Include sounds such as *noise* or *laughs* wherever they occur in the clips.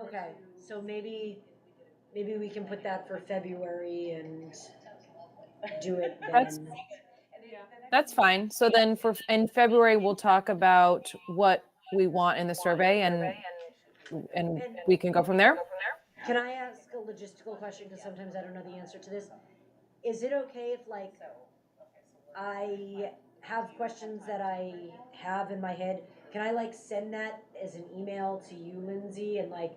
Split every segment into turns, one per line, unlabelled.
Okay, so maybe, maybe we can put that for February and do it
That's-
then.
That's fine. So then for, in February, we'll talk about what we want in the survey and, and we can go from there.
Can I ask a logistical question, because sometimes I don't know the answer to this? Is it okay if like, I have questions that I have in my head, can I like send that as an email to you, Lindsay, and like,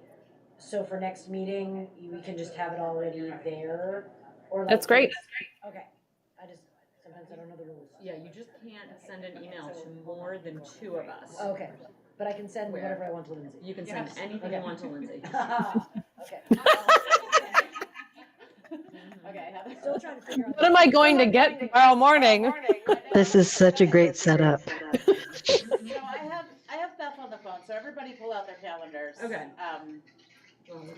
so for next meeting, you- we can just have it already there? Or like-
That's great.
Okay, I just, sometimes I don't know the rules.
Yeah, you just can't send an email to more than two of us.
Okay, but I can send
Where?
whatever I want to Lindsay.
You can send anything
Okay.
you want to *laughs* Lindsay.
*laughs* okay.
Okay,
Still trying to figure out.
What am I going to get tomorrow morning?
This is such a great setup. *laughs*
So I have, I have Beth on the phone, so everybody pull out their calendars.
Okay.
Um,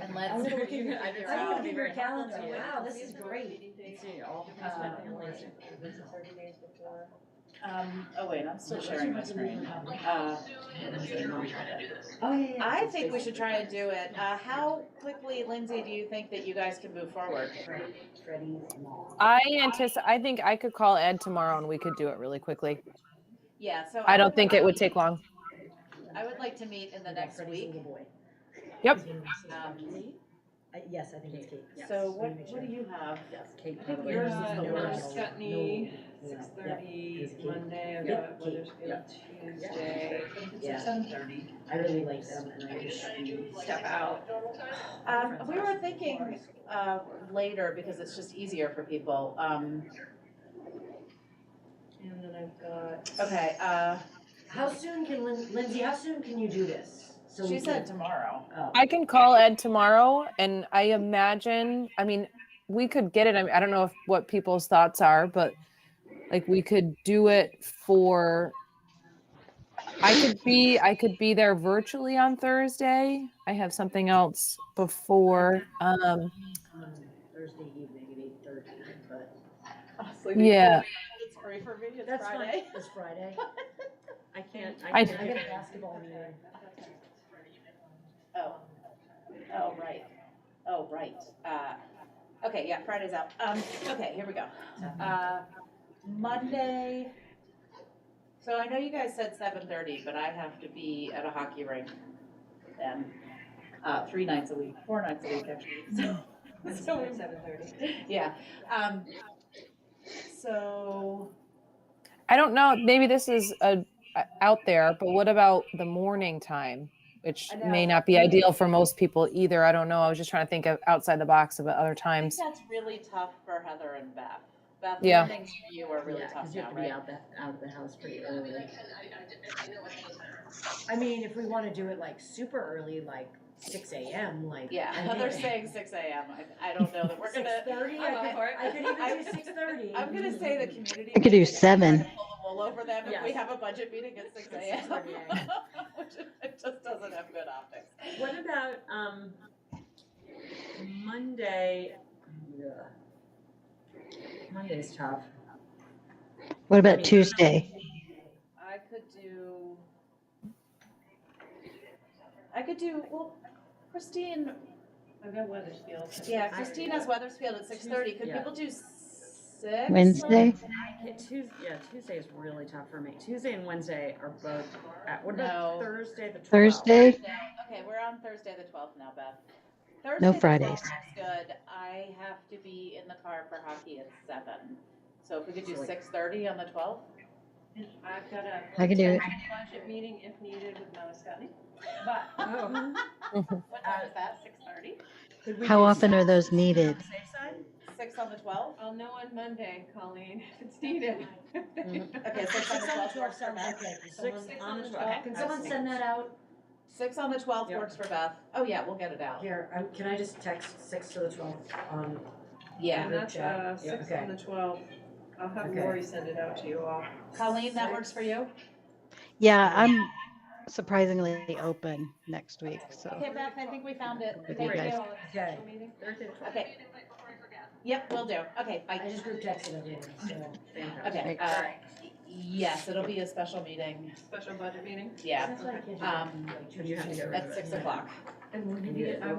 and let's.
I'm gonna look at
you
your-
can figure
I'm
out-
gonna look at your calendar. Wow, this is great.
Let's see, all the
Uh,
families.
Um, oh wait, I'm still sharing my screen. Uh,
Oh, yeah, yeah.
I think we should try and do it. Uh, how quickly, Lindsay, do you think that you guys can move forward?
Freddie Small.
I anticipate, I think I could call Ed tomorrow and we could do it really quickly.
Yeah, so.
I don't
would
think
like-
it would take long.
I would like to meet in the next
Freddie's
week.
little boy.
Yep.
Um,
I- Yes, I think it's Kate.
So what, what do you have?
Yes, Kate.
I think
probably
yours
is
is
the
yours,
worst.
Scutney,
No,
Six
yeah,
thirty
Yep.
Monday, I've
Yep.
got Weathersfield Tuesday.
Yeah, I really like them and I just.
Step out.
Um, we were thinking, uh, later because it's just easier for people. Um,
And then I've got.
okay, uh,
How soon can Lin- Lindsay, how soon can you do this? So we
she
can-
said tomorrow. *laughs*
oh.
I can call Ed tomorrow and I imagine, I mean, we could get it. I mean, I don't know if, what people's thoughts are, but like we could do it for, I could be, I could be there virtually on Thursday. I have something else before. Um,
um, Thursday evening at eight thirty, but.
yeah,
It's free for me, it's
That's fine,
Friday.
it's Friday.
I can't,
I-
I
I got
can't.
a basketball meeting.
Oh, oh, right, oh, right, uh, okay, yeah, Friday's out, um, okay, here we go. Uh, Monday, so I know you guys said seven thirty, but I have to be at a hockey rink then, uh, three nights a week, four nights a week, actually, *laughs* so. So we
Seven thirty.
Yeah, um, so,
I don't know. Maybe this is a, a- out there, but what about the morning time? Which
I
may
know.
not be ideal for most people either. I don't know. I was just trying to think of outside the box of other
I think
times.
that's really tough for Heather and Beth. Beth,
Yeah.
mornings for you are really
Yeah,
tough
cause you have
now,
to be
right?
out the, out of the house pretty early.
I mean, if we wanna do it like super early, like six AM, like.
Yeah, Heather's saying six AM, I, I don't know that we're
Six
gonna,
thirty,
I'm up
I
for
could,
it.
I could even do six thirty.
I'm gonna say the community.
I could
meeting,
do
I'm
seven.
trying to Pull the wool over them if we
Yes.
have a budget meeting at six AM.
6:30 a.m..
*laughs* Which, it just doesn't have good optics.
What about, um, Monday? Ugh. Monday's tough.
What about Tuesday?
I could do. I could do, well, Christine,
I've got Weathersfield.
yeah, Christine has Weathersfield at six thirty, could
Yeah.
people do six?
Wednesday?
Yeah, Tuesday, yeah, Tuesday is really tough for me. Tuesday and Wednesday are both, at- what
No.
about Thursday, the twelfth?
Thursday?
Okay, we're on Thursday the twelfth now, Beth. Thursday the 12th
Fridays.
is Good, I have to be in the car for hockey at seven, so if we could do
So, like-
six thirty on the twelfth?
And I've got a.
I can do it.
Budget meeting if needed with Mama Scotty, but
Oh.
What time is that, six thirty?
Could we
How
do
often are
six?
those needed?
On the safe side?
Six on the twelfth?
I'll know on Monday, Colleen, if it's needed.
Okay, six on the twelfth works for Beth.
Someone,
Six
on
on
the
the
twelfth.
can someone send that out?
Six on the twelfth
Yeah.
works for Beth, oh yeah, we'll get it out,
Here, um, can I just text six to the twelve on,
yeah.
And that's, uh,
Yeah,
six
okay.
on the twelfth. I'll have
Okay.
Lori send it out to you all.
Colleen, that works for you?
Yeah, I'm surprisingly open next week, so.
Okay, Beth, I think we found it,
With you
thank
guys.
you.
okay,
Thursday, the twelfth.
Okay. Yep, we will do, okay,
I
bye,
just group texted everyone, so.
okay,
Thanks.
uh, Yes, it'll be a special meeting,
special budget meeting.
yeah,
That's why I can't do it.
um,
You have to get rid of it.
at six o'clock.
And we
Yeah.
I